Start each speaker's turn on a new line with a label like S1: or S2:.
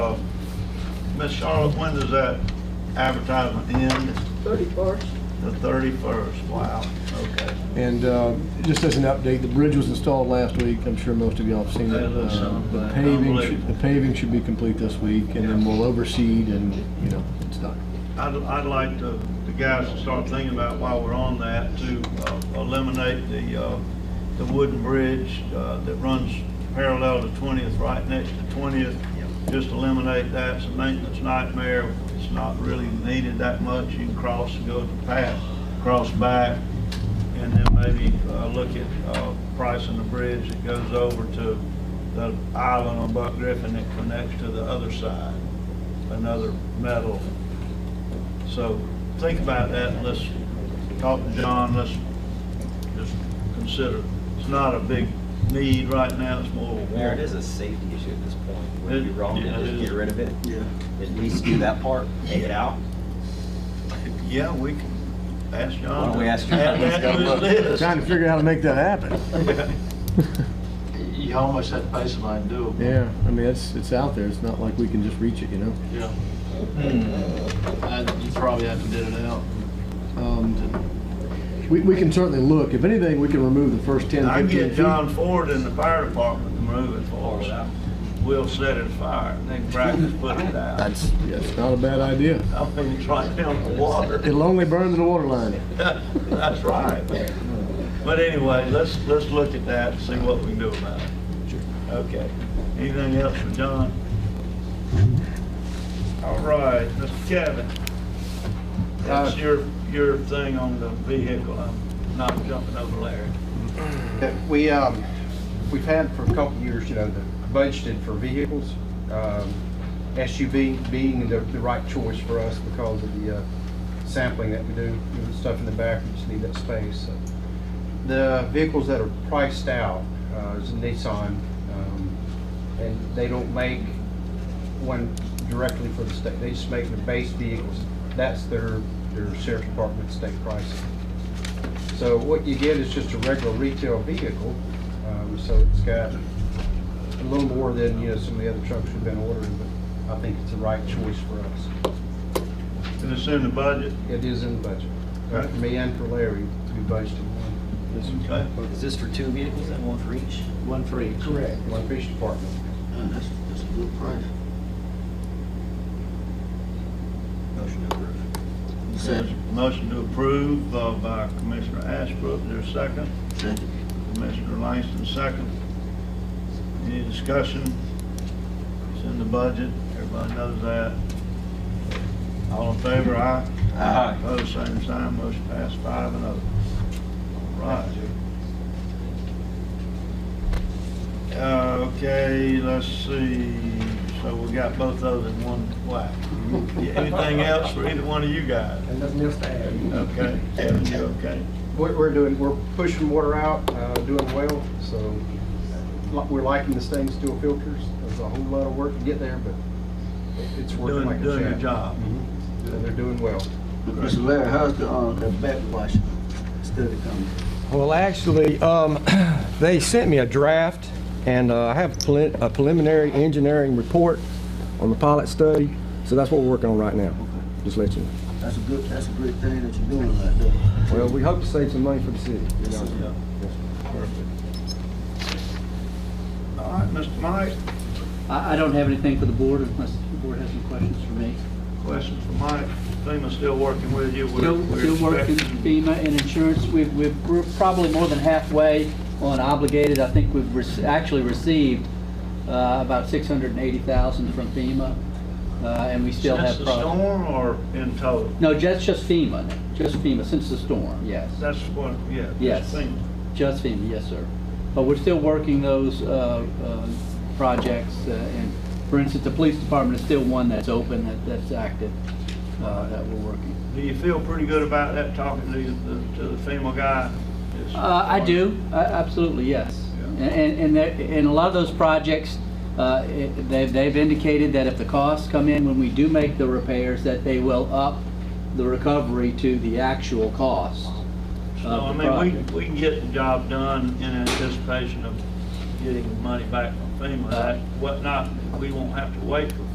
S1: Uh, Miss Charlotte, when does that advertisement end?
S2: Thirty-first.
S1: The thirty-first, wow, okay.
S3: And uh, just as an update, the bridge was installed last week. I'm sure most of y'all have seen it.
S1: That looks
S3: Uh, The
S1: unbelievable.
S3: paving, should- the paving should be complete this week, and then
S1: Yeah.
S3: we'll overseed and, you know, it's done.
S1: I'd, I'd like to, the guys to start thinking about while we're on that, to uh, eliminate the, uh, the wooden bridge uh, that runs parallel to 20th, right next to 20th. Just eliminate that, it's a maintenance nightmare, it's not really needed that much, you can cross and go to the path, cross back, and then maybe uh, look at uh, pricing the bridge that goes over to the island on Buck Griffin that connects to the other side, another metal so think about that, let's talk to John, let's just consider, it's not a big need right now, it's more of a
S4: Mayor, it
S1: want.
S4: is a safety issue at this point. Would it be
S1: It-
S4: wrong to
S1: yeah, it
S4: just
S1: is.
S4: get rid of it? Yeah. At least do that part, take it out?
S1: Yeah, we can ask John.
S4: Why don't we ask John?
S1: Add
S4: He's
S1: that
S4: got
S1: to his
S4: a
S1: list.
S3: Trying to figure out how to make that happen.
S5: You almost had baseline doable.
S3: Yeah, I mean, it's, it's out there. It's not like we can just reach it, you know?
S5: Yeah. I- You probably have to bid it out.
S3: Um, We, we can certainly look. If anything, we can remove the first 10,
S1: I
S3: 15
S1: get
S3: feet.
S1: John Ford in the fire department to move it for us. We'll set it afire, then practice putting it out.
S3: That's, yeah, it's not a bad idea.
S1: I mean, it's right down the water.
S3: It'll only burn to the water line.
S1: That's right. But anyway, let's, let's look at that and see what we can do about it. Okay. Anything else for John? All right, Mr. Kevin. That's your, your thing on the vehicle. I'm not jumping over Larry.
S6: that we, um, we've had for a couple of years, you know, the budgeted for vehicles, um, SUV being the, the right choice for us because of the, uh, sampling that we do, you know, the stuff in the back, we just need that space, so. The vehicles that are priced out, uh, is a Nissan, um, and they don't make one directly for the state, they just make the base vehicles. That's their, their sheriff's department state pricing. So what you get is just a regular retail vehicle, um, so it's got a little more than, you know, some of the other trucks we've been ordering, but I think it's the right choice for us.
S1: And it's in the budget.
S6: It is in the budget, Uh, for me and for Larry to be budgeted one,
S1: Okay.
S4: Is this for two vehicles and one for each?
S5: One for each. Correct.
S6: one fish department.
S5: Oh, That's, that's a good price.
S4: Motion to approve.
S1: Motion to approve uh, by Commissioner Ashbrook, there's a second.
S5: Second.
S1: Commissioner Langston, second. Any discussion? It's in the budget, everybody knows that. All in favor, aye?
S4: Aye.
S1: Opposed, same sign, motion passed five and oh. All right. Uh, Okay, let's see, so we got both those in one whack. Anything else for either one of you guys?
S6: And nothing else to add.
S1: Okay, Kevin, you okay?
S6: We're, we're doing, we're pushing water out, uh, doing well, so li- we're liking the stainless steel filters. There's a whole lot of work to get there, but it- it's working
S1: Doing-
S6: like a
S1: doing your
S6: champ.
S1: job.
S6: Mhm. And they're doing well.
S5: Mr. Larry, how's the, uh, the backwash study coming?
S7: Well, actually, um, they sent me a draft, and uh, I have preli- a preliminary engineering report on the pilot study, so that's what we're working on right now. Just let you know.
S5: That's a good, that's a great thing that you're doing right there.
S7: Well, we hope to save some money for the city.
S1: Yeah. Perfect. All right, Mr. Mike,
S8: I, I don't have anything for the board unless the board has any questions for me.
S1: question for Mike. FEMA's still working with you. We're-
S8: Still,
S1: we're
S8: still working
S1: expecting-
S8: FEMA and insurance, we've, we've, we're probably more than halfway on obligated. I think we've rec- actually received, uh, about six hundred and eighty thousand from FEMA, uh, and we still have.
S1: Since the
S8: pro-
S1: storm or in total?
S8: No, just, just FEMA, just FEMA, since the storm, yes.
S1: That's what, yeah. that's
S8: Yes.
S1: FEMA.
S8: Just FEMA, yes, sir. But we're still working those uh, uh, projects, uh, and for instance, the police department is still one that's open, that- that's active, uh, that we're working.
S1: Do you feel pretty good about that, talking to the, to the FEMA guy? It's-
S8: Uh, I do, A- absolutely, yes.
S1: Yeah.
S8: And, and- and, there- and a lot of those projects, uh, it- they've, they've indicated that if the costs come in when we do make the repairs, that they will up the recovery to the actual cost.
S1: So, I
S8: of uh, the
S1: mean,
S8: project.
S1: we, we can get the job done in
S8: Uh,
S1: anticipation of getting the money back from FEMA. That, what not, we won't have to wait for